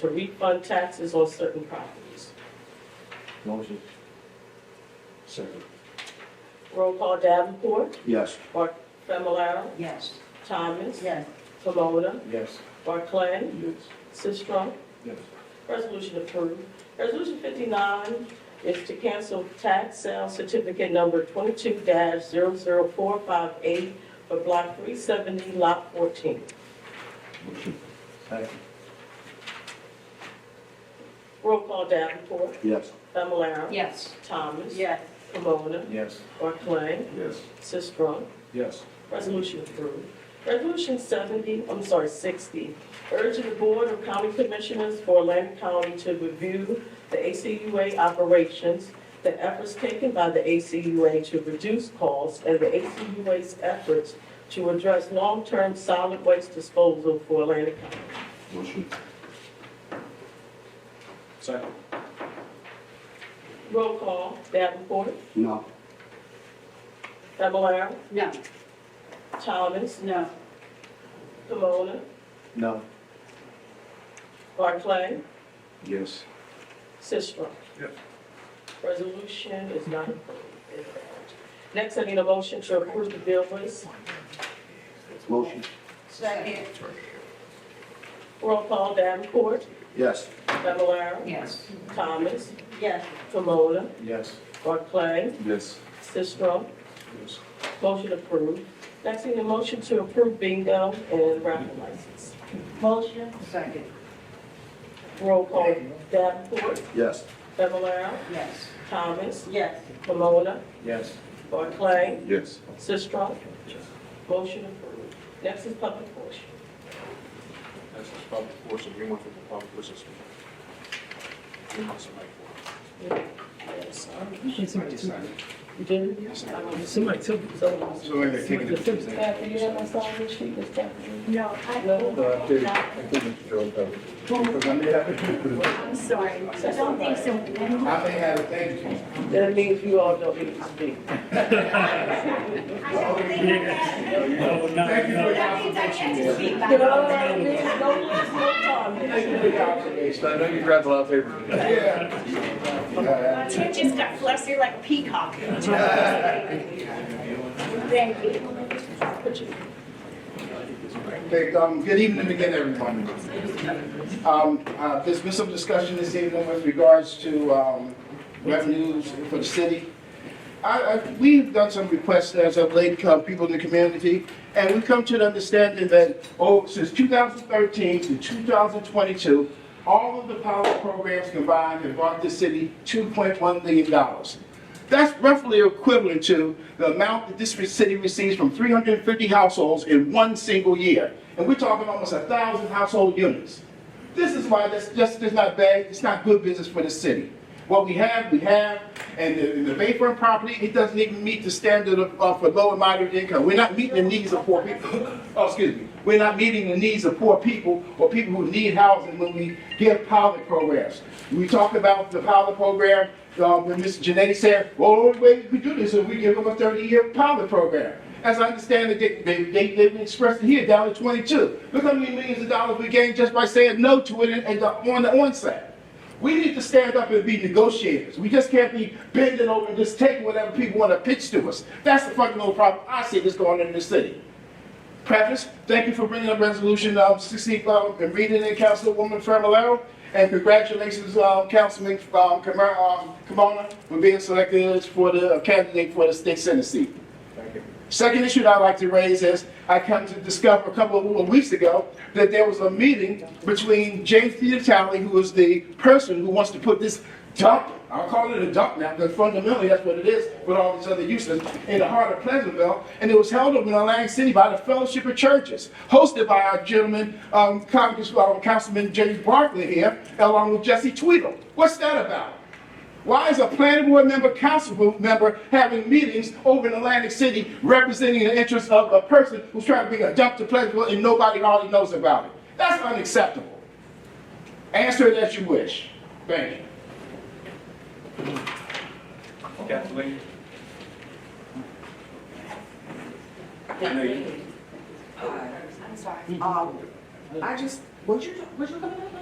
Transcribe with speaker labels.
Speaker 1: to refund taxes on certain properties.
Speaker 2: Motion. Second.
Speaker 1: Roll call Davenport,
Speaker 2: Yes.
Speaker 1: Familar,
Speaker 3: Yes.
Speaker 1: Thomas,
Speaker 3: Yes.
Speaker 1: Pomona,
Speaker 2: Yes.
Speaker 1: Barclay,
Speaker 2: Yes.
Speaker 1: Sistrum.
Speaker 2: Yes.
Speaker 1: Resolution approved. Resolution fifty-nine is to cancel tax sale certificate number twenty-two 458 for block three seventy, lot fourteen.
Speaker 2: Second.
Speaker 1: Roll call Davenport,
Speaker 2: Yes.
Speaker 1: Familar,
Speaker 3: Yes.
Speaker 1: Thomas,
Speaker 3: Yes.
Speaker 1: Pomona,
Speaker 2: Yes.
Speaker 1: Barclay,
Speaker 2: Yes.
Speaker 1: Sistrum.
Speaker 2: Yes.
Speaker 1: Resolution approved. Resolution 70, I'm sorry, 60, urging the Board of County Commissioners for Atlantic County to review the ACUA operations, the efforts taken by the ACUA to reduce costs, and the ACUA's efforts to address long-term solid waste disposal for Atlantic County.
Speaker 2: Motion. Second.
Speaker 1: Roll call, Davenport,
Speaker 2: No.
Speaker 1: Fablelaro,
Speaker 3: No.
Speaker 1: Thomas,
Speaker 3: No.
Speaker 1: Camona,
Speaker 2: No.
Speaker 1: Barclay,
Speaker 2: Yes.
Speaker 1: Sistrum.
Speaker 2: Yes.
Speaker 1: Resolution is not approved. Next, I need a motion to approve the bill list.
Speaker 2: Motion.
Speaker 3: Second.
Speaker 1: Roll call Davenport,
Speaker 2: Yes.
Speaker 1: Fablelaro,
Speaker 3: Yes.
Speaker 1: Thomas,
Speaker 3: Yes.
Speaker 1: Camona,
Speaker 2: Yes.
Speaker 1: Barclay,
Speaker 2: Yes.
Speaker 1: Sistrum.
Speaker 2: Yes.
Speaker 1: Motion approved. Next, I need a motion to approve bingo and raffle license.
Speaker 3: Motion. Second.
Speaker 1: Roll call Davenport,
Speaker 2: Yes.
Speaker 1: Fablelaro,
Speaker 3: Yes.
Speaker 1: Thomas,
Speaker 3: Yes.
Speaker 1: Camona,
Speaker 2: Yes.
Speaker 1: Barclay,
Speaker 2: Yes.
Speaker 1: Sistrum. Motion approved. Next is public portion.
Speaker 4: That's just public portion, we want to the public portion. We want somebody for
Speaker 1: Yes,
Speaker 5: Somebody took it.
Speaker 1: You did?
Speaker 5: Somebody took it.
Speaker 1: So
Speaker 4: So we're taking
Speaker 5: Somebody took it.
Speaker 1: Kathy, you have my sign this sheet, Ms. Kathy?
Speaker 6: No, I,
Speaker 1: No?
Speaker 2: I do, I do, Mr. Jones, because I may have,
Speaker 6: I'm sorry, I don't think so.
Speaker 2: I may have, thank you.
Speaker 1: That means you all don't need to speak.
Speaker 6: I don't think I have.
Speaker 5: No, no, no.
Speaker 6: That means I have to speak back.
Speaker 4: I know you grabbed a lot of paper.
Speaker 6: My tent just got flustered like a peacock. Thank you.
Speaker 7: Okay, um, good evening again, everyone. Um, uh, there's been some discussion this evening with regards to, um, revenues for the city. I, I, we've done some requests as of late, uh, people in the community, and we've come to an understanding that, oh, since two thousand thirteen to two thousand twenty-two, all of the power programs combined have brought the city two point one million dollars. That's roughly equivalent to the amount that this city receives from 350 households in one single year. And we're talking almost 1,000 household units. This is why this, this is not bad, it's not good business for the city. What we have, we have, and the, the Bayfront property, it doesn't even meet the standard of, of for low and moderate income. We're not meeting the needs of poor people, oh, excuse me, we're not meeting the needs of poor people or people who need housing when we give pilot programs. We talk about the pilot program, uh, when Mr. Janetti said, well, the only way we do this is we give them a 30-year pilot program. As I understand it, they, they, they, they've expressed it here down to 22. Look how many millions of dollars we gained just by saying no to it and, and uh, on the onset. We need to stand up and be negotiators. We just can't be bending over and just taking whatever people want to pitch to us. That's the fucking old problem I see that's going on in this city preface, thank you for bringing up Resolution um, 60 um, and reading it, Councilwoman Fermalero. And congratulations, um, Councilman um, Kamara- um, Kimona, for being selected as for the uh, candidate for the state senate seat. Second issue that I'd like to raise is, I come to discover a couple of weeks ago that there was a meeting between James Peter Talley, who is the person who wants to put this dump, I'll call it a dump now, because fundamentally that's what it is, with all these other uses, in the heart of Pleasantville, and it was held up in Atlantic City by the Fellowship of Churches, hosted by our gentleman, um, Congress, uh, Councilman James Barkley here, along with Jesse Tweedle. What's that about? Why is a planning board member, council board member having meetings over in Atlantic City representing the interests of a person who's trying to bring a dump to Pleasantville and nobody hardly knows about it? That's unacceptable. Answer it as you wish. Thank you.
Speaker 4: Kathleen? I know you,
Speaker 8: Um, I just, was you, was you coming up?